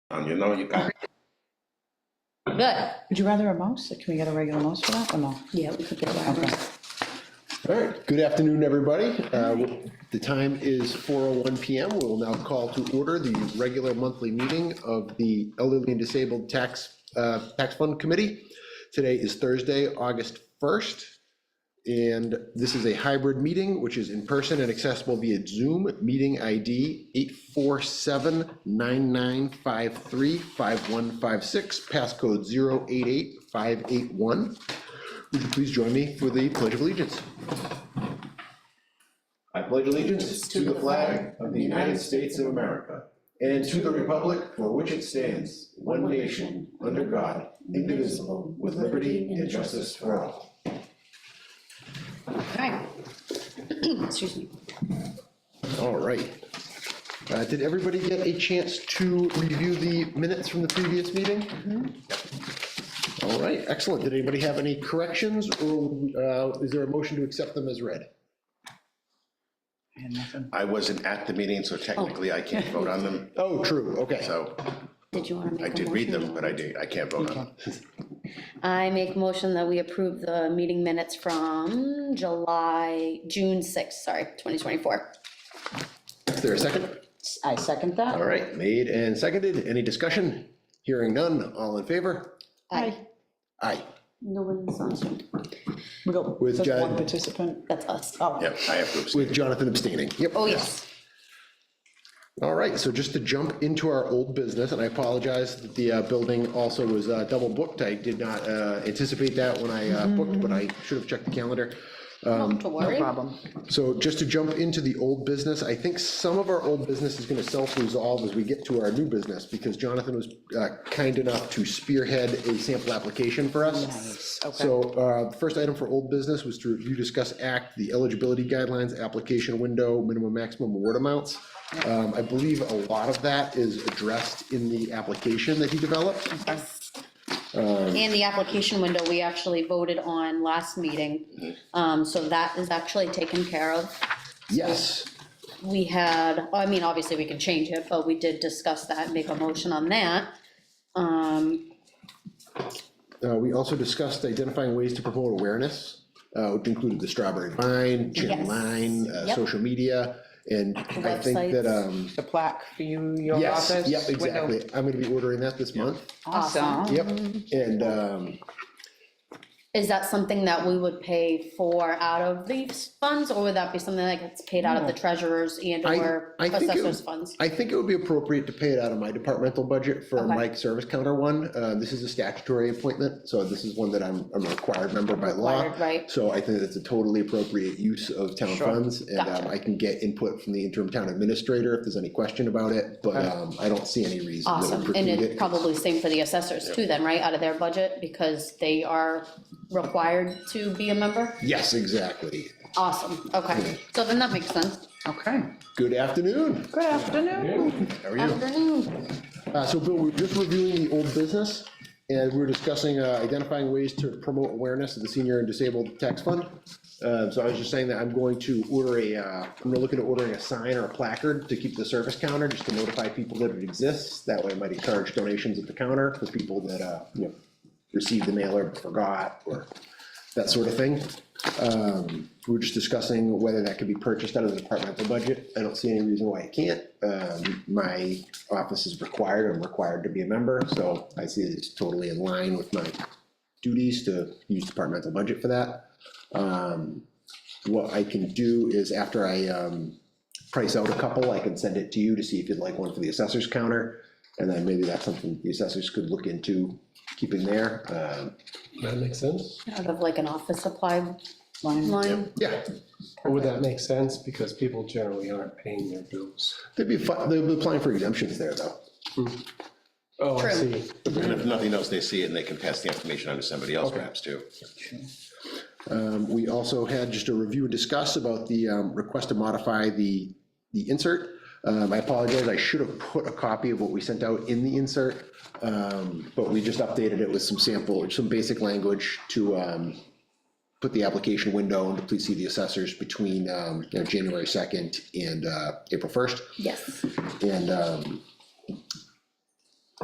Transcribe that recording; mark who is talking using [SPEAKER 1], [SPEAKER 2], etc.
[SPEAKER 1] Um, you know, you got,
[SPEAKER 2] Good.
[SPEAKER 3] Would you rather a mouse? Can we get a regular mouse for that or no?
[SPEAKER 2] Yeah, we could get around.
[SPEAKER 3] Okay.
[SPEAKER 4] All right, good afternoon, everybody. Uh, The time is 4:01 PM. We will now call to order the regular monthly meeting of the Elderly and Disabled Tax, uh, Tax Fund Committee. Today is Thursday, August 1st, and this is a hybrid meeting, which is in person and accessible via Zoom. Meeting ID 847-9953-5156, passcode 088581. Would you please join me for the Pledge of Allegiance?
[SPEAKER 5] I pledge allegiance to the flag of the United States of America and to the republic for which it stands, one nation, under God, indivisible, with liberty and justice for all.
[SPEAKER 2] Okay. Excuse me.
[SPEAKER 4] All right. Uh, Did everybody get a chance to review the minutes from the previous meeting?
[SPEAKER 5] Mm-hmm.
[SPEAKER 4] All right, excellent. Did anybody have any corrections, or uh, is there a motion to accept them as read?
[SPEAKER 3] I had nothing.
[SPEAKER 1] I wasn't at the meeting, so technically I can't vote on them.
[SPEAKER 4] Oh, true, okay.
[SPEAKER 1] So
[SPEAKER 2] Did you want to make a
[SPEAKER 1] I
[SPEAKER 2] motion?
[SPEAKER 1] did read them, but I did, I can't vote on them.
[SPEAKER 2] I make motion that we approve the meeting minutes from July, June 6th, sorry, 2024.
[SPEAKER 4] Is there a second?
[SPEAKER 3] I second that.
[SPEAKER 4] All right, made and seconded. Any discussion? Hearing none. All in favor?
[SPEAKER 2] Aye.
[SPEAKER 4] Aye.
[SPEAKER 2] No one's on Zoom.
[SPEAKER 3] We got
[SPEAKER 4] With
[SPEAKER 3] just one
[SPEAKER 4] Jen.
[SPEAKER 3] participant.
[SPEAKER 2] That's us.
[SPEAKER 3] Oh,
[SPEAKER 1] Yep, I have to abstain.
[SPEAKER 4] With Jonathan abstaining. Yep.
[SPEAKER 2] Oh, yes.
[SPEAKER 4] All right, so just to jump into our old business, and I apologize that the uh, building also was uh, double booked. I did not uh, anticipate that when I uh, booked, but I should have checked the calendar.
[SPEAKER 1] Um,
[SPEAKER 2] Not to
[SPEAKER 3] no
[SPEAKER 2] worry.
[SPEAKER 3] problem.
[SPEAKER 4] So just to jump into the old business, I think some of our old business is gonna self-resolve as we get to our new business, because Jonathan was uh, kind enough to spearhead a sample application for us.
[SPEAKER 3] Nice, okay.
[SPEAKER 4] So uh, the first item for old business was to review, discuss, act, the eligibility guidelines, application window, minimum, maximum award amounts. Um, I believe a lot of that is addressed in the application that he developed.
[SPEAKER 1] Um,
[SPEAKER 2] And the application window, we actually voted on last
[SPEAKER 1] Mm-hmm.
[SPEAKER 2] meeting. Um, So that is actually taken care of.
[SPEAKER 4] Yes,
[SPEAKER 2] we had, I mean, obviously, we can change it, but we did discuss that, make a motion on that. Um,
[SPEAKER 4] Uh, We also discussed identifying ways to promote awareness, uh, which included the Strawberry Vine, Chin
[SPEAKER 2] Yes.
[SPEAKER 4] Line, uh,
[SPEAKER 2] Yep.
[SPEAKER 4] social media, and I think that,
[SPEAKER 2] websites.
[SPEAKER 4] um,
[SPEAKER 3] The plaque for you, your
[SPEAKER 4] yes,
[SPEAKER 3] office.
[SPEAKER 4] yep,
[SPEAKER 3] window.
[SPEAKER 4] exactly. I'm gonna be ordering that this month.
[SPEAKER 3] Awesome.
[SPEAKER 4] Yep, and, um,
[SPEAKER 2] Is that something that we would pay for out of these funds, or would that be something that gets paid out of the treasurer's and
[SPEAKER 4] I,
[SPEAKER 2] or
[SPEAKER 4] I think,
[SPEAKER 2] assessor's
[SPEAKER 4] it-
[SPEAKER 2] funds?
[SPEAKER 4] I think it would be appropriate to pay it out of my departmental budget for
[SPEAKER 2] Okay.
[SPEAKER 4] Mike Service Counter one. Uh, This is a statutory appointment, so this is one that I'm, I'm a required member by law.
[SPEAKER 2] Required, right.
[SPEAKER 4] So I think that's a totally appropriate use of town
[SPEAKER 3] Sure.
[SPEAKER 4] funds, and um,
[SPEAKER 2] Gotcha.
[SPEAKER 4] I can get input from the interim town administrator if there's any question about it, but um, I don't see any reason that would
[SPEAKER 2] Awesome, and
[SPEAKER 4] preclude
[SPEAKER 2] it's
[SPEAKER 4] it.
[SPEAKER 2] probably same for the assessors too then, right, out of their budget, because they are required to be a member?
[SPEAKER 4] Yes, exactly.
[SPEAKER 2] Awesome, okay, so then that makes sense.
[SPEAKER 3] Okay.
[SPEAKER 4] Good afternoon.
[SPEAKER 3] Good afternoon.
[SPEAKER 4] How are you?
[SPEAKER 2] Afternoon,
[SPEAKER 4] Uh, So Bill, we we're just reviewing the old business, and we we're discussing uh, identifying ways to promote awareness of the senior and disabled tax fund. Uh, So I was just saying that I'm going to order a, uh, I'm looking at ordering a sign or a placard to keep the service counter, just to notify people that it exists. That way I might encourage donations at the counter for people that, uh, you know, received the mailer but forgot, or that sort of thing. Um, We were just discussing whether that could be purchased out of the departmental budget. I don't see any reason why it can't. Um, My office is required, I'm required to be a member, so I see it's totally in line with my duties to use departmental budget for that. Um, What I can do is after I um, price out a couple, I can send it to you to see if you'd like one for the assessor's counter. And then maybe that's something the assessors could look into keeping there. Um,
[SPEAKER 6] That makes sense.
[SPEAKER 2] out of like an office supply
[SPEAKER 3] Fine.
[SPEAKER 2] line.
[SPEAKER 4] Yeah,
[SPEAKER 6] But Would that make sense? Because people generally aren't paying their bills.
[SPEAKER 4] they'd be, fi- they'd be applying for exemptions there, though.
[SPEAKER 6] Oh, I
[SPEAKER 2] True.
[SPEAKER 6] see.
[SPEAKER 1] And if nothing else, they see it and they can pass the information on to somebody else perhaps too.
[SPEAKER 4] Um, We also had just a review and discuss about the um, request to modify the, the insert. Um, I apologize, I should have put a copy of what we sent out in the insert, um, but we just updated it with some sample, some basic language to um, put the application window and to please see the assessors between, um, you know, January 2nd and uh, April 1st.
[SPEAKER 2] Yes,
[SPEAKER 4] And um,